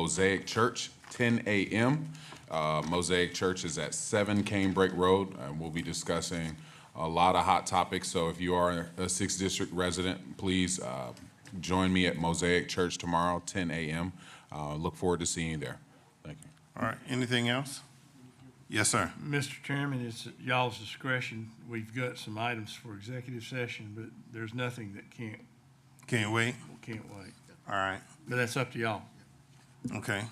Mosaic Church, 10 a.m. Uh, Mosaic Church is at 7 Canebrake Road, and we'll be discussing a lot of hot topics. So if you are a Sixth District resident, please uh, join me at Mosaic Church tomorrow, 10 a.m. Uh, Look forward to seeing you there. Thank you. All right, anything else? Yes, sir. Mr. Chairman, it's at y'all's discretion. We've got some items for executive session, but there's nothing that can't, Can't wait. can't wait. All right, But that's up to y'all. okay.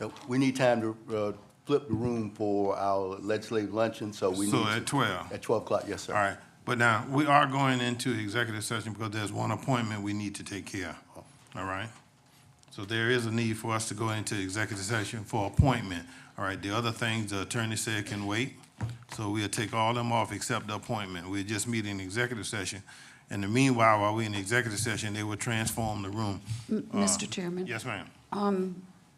Uh, We need time to uh, flip the room for our legislative luncheon, so we need. So to- at 12. At 12 o'clock, yes, sir. All right, but now, we are going into executive session because there's one appointment we need to take care of, all right? So there is a need for us to go into executive session for appointment. All right, the other things the attorney said can wait, so we'll take all them off except the appointment. We'll just meet in executive session. In the meanwhile, while we in executive session, they will transform the room. Um, Mr. Chairman? Yes, ma'am.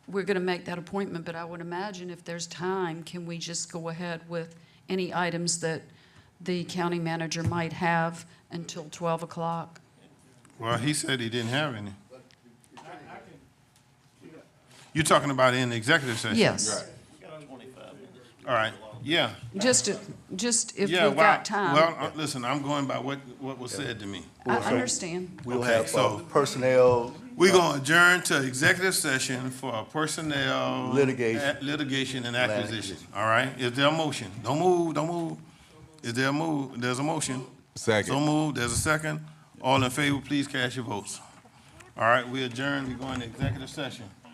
We're going to make that appointment, but I would imagine if there's time, can we just go ahead with any items that the county manager might have until 12 o'clock? Well, he said he didn't have any. You're talking about in the executive session? Yes. All right, yeah. Just, just if Yeah, we've well, got time. Well, uh, listen, I'm going by what, what was said to me. I understand. We'll Okay, have uh, so- personnel, We're gonna adjourn to executive session for personnel. Litigation. a- Litigation and acquisition, all right? Is there a motion? Don't move, don't move. Is there a move? There's a motion. Second. So moved, there's a second. All in favor, please cast your votes. All right, we adjourn, we go into executive session.